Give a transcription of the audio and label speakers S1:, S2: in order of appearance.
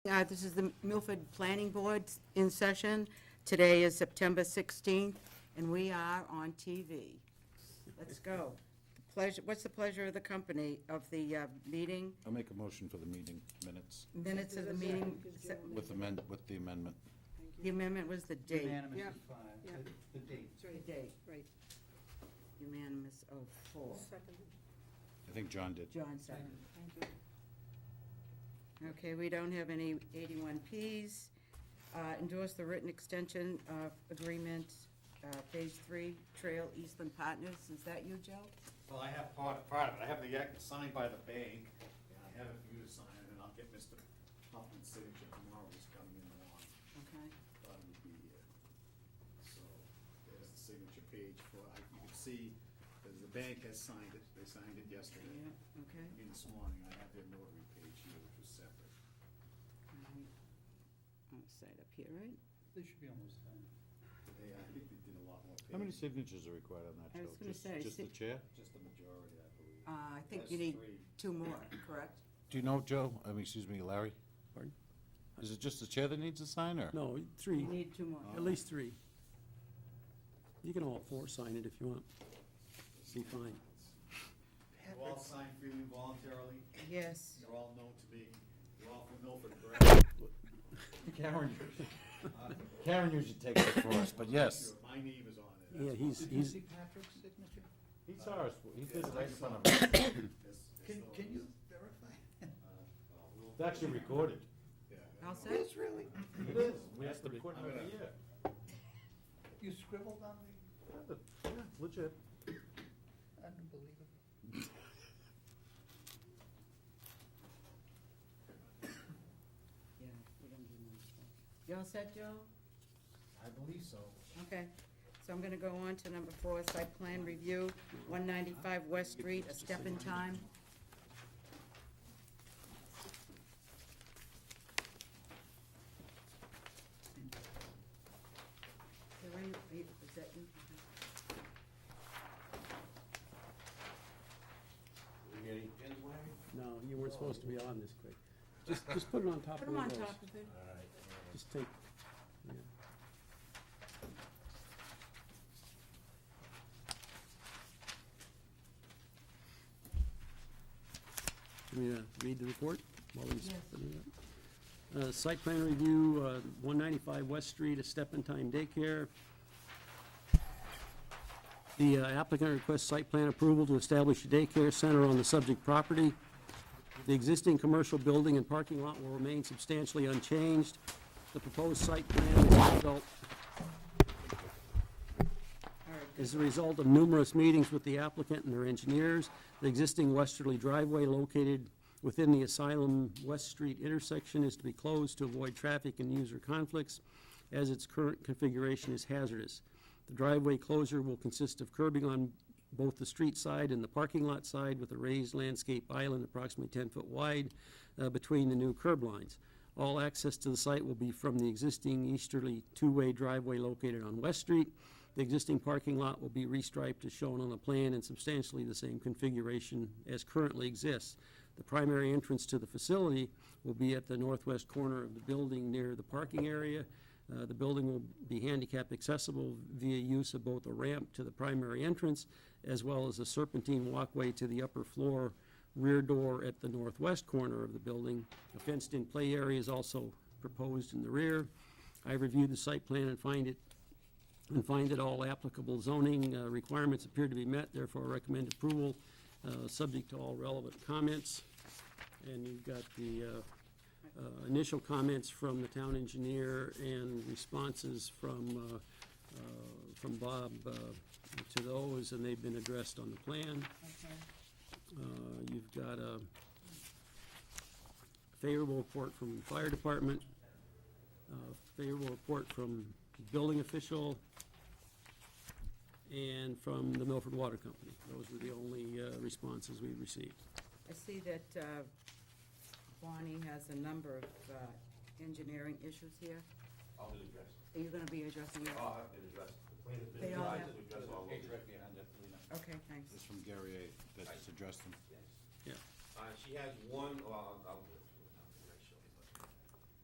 S1: Uh, This is the Milford Planning Board in session. Today is September 16th, and we are on TV. Let's go. The Pleasure, what's the pleasure of the company, of the uh, meeting,
S2: I'll make a motion for the meeting minutes
S1: minutes of the meeting? Se-
S2: with amend, with the amendment.
S1: The amendment was the date.
S3: Unanimous
S4: Yeah.
S3: is five,
S4: Yeah.
S3: the, the date.
S1: The date,
S4: Right,
S1: unanimous of four.
S4: second,
S2: I think John did.
S1: John second.
S4: thank you.
S1: Okay, we don't have any 81Ps. Uh, Endorse the written extension of agreement, uh, Phase 3, Trail Eastland Partners. Is that you, Joe?
S5: Well, I have part, part of it, I have the act signed by the bank, and I have it for you to sign, and I'll get Mr. Huffman's signature tomorrow, he's coming in along,
S1: Okay.
S5: thought he would be here. So, there's the signature page for, I- you can see, as the bank has signed it, they signed it yesterday.
S1: Yeah, okay.
S5: I mean, this morning, I have their notary page here, which was separate.
S1: I'll say it up here, right?
S3: This should be almost done.
S5: They, I think they did a lot more
S2: How many
S5: pages,
S2: signatures are required on that,
S1: I
S2: Joe?
S1: was gonna
S2: Just-
S1: say,
S2: Just the
S1: six-
S2: chair?
S5: just the majority, I believe.
S1: Uh, I think you
S5: That's
S1: need
S5: three.
S1: two more, correct?
S2: Do you know, Joe? I mean, excuse me, Larry?
S6: Pardon?
S2: Is it just the chair that needs a sign, or?
S6: No,
S1: You
S6: three,
S1: need two more.
S6: at least three. You can all four sign it if you want. Be fine.
S5: You all signed freely and voluntarily,
S1: Yes.
S5: you're all known to me, you're all from Milford, correct?
S2: Karen. Karen usually takes it for us, but yes.
S5: Sure, My name is on it.
S6: Yeah,
S5: that's
S6: he's,
S3: Did you
S6: he's,
S3: see Patrick's signature?
S2: He saw us, he did
S5: it right in front
S2: of us.
S5: why. It's- it's
S3: Can,
S5: not-
S3: can you verify?
S5: uh, well, we'll-
S2: It's actually recorded.
S5: Yeah, I
S1: All
S5: know.
S1: set?
S3: really?
S2: It is. We have to record it every year.
S3: You scribbled on the,
S2: Yeah, legit.
S3: unbelievable.
S1: Yeah, we don't do more. You all set, Joe?
S5: I believe so.
S1: Okay. So I'm gonna go on to number four, site plan review, one ninety-five West Street, a step in time. Is there any- is that you?
S6: no, you weren't supposed to be on this quick. Just, just put it on top
S1: Put
S6: of
S1: them
S6: one
S1: on
S6: of those.
S1: top of it.
S6: Just take, yeah. Do we uh, read the report? while we
S1: Yes.
S6: put it up? Uh, Site plan review, uh, 195 West Street, a step in time daycare. The uh, applicant requests site plan approval to establish a daycare center on the subject property. The existing commercial building and parking lot will remain substantially unchanged. The proposed site plan is the result-
S1: All right, good.
S6: is the result of numerous meetings with the applicant and their engineers. The existing westerly driveway located within the Asylum West Street intersection is to be closed to avoid traffic and user conflicts, as its current configuration is hazardous. The driveway closure will consist of curbing on both the street side and the parking lot side with a raised landscape island approximately 10-foot wide uh, between the new curb lines. All access to the site will be from the existing easterly two-way driveway located on West Street. The existing parking lot will be restriped as shown on the plan in substantially the same configuration as currently exists. The primary entrance to the facility will be at the northwest corner of the building near the parking area. Uh, The building will be handicap accessible via use of both a ramp to the primary entrance as well as a serpentine walkway to the upper floor rear door at the northwest corner of the building. A fenced-in play area is also proposed in the rear. I reviewed the site plan and find it, and find that all applicable zoning uh, requirements appear to be met, therefore recommend approval, uh, subject to all relevant comments. And you've got the uh, uh, initial comments from the town engineer and responses from, uh, uh, from Bob uh, to those, and they've been addressed on the plan. Uh, You've got a favorable report from fire department, uh, favorable report from building official, and from the Milford Water Company. Those were the only uh, responses we received.
S1: I see that uh, Bonnie has a number of uh, engineering issues here.
S7: I'll just address,
S1: Are you gonna be addressing it?
S7: I'll have to address,
S1: They all have,
S7: address all of
S5: Page
S7: it.
S5: right behind that, Lena.
S1: okay, thanks.
S2: It's from Gary A. that just addressed them.
S7: Yes.
S6: Yeah.
S7: Uh, she has one, uh, I'll-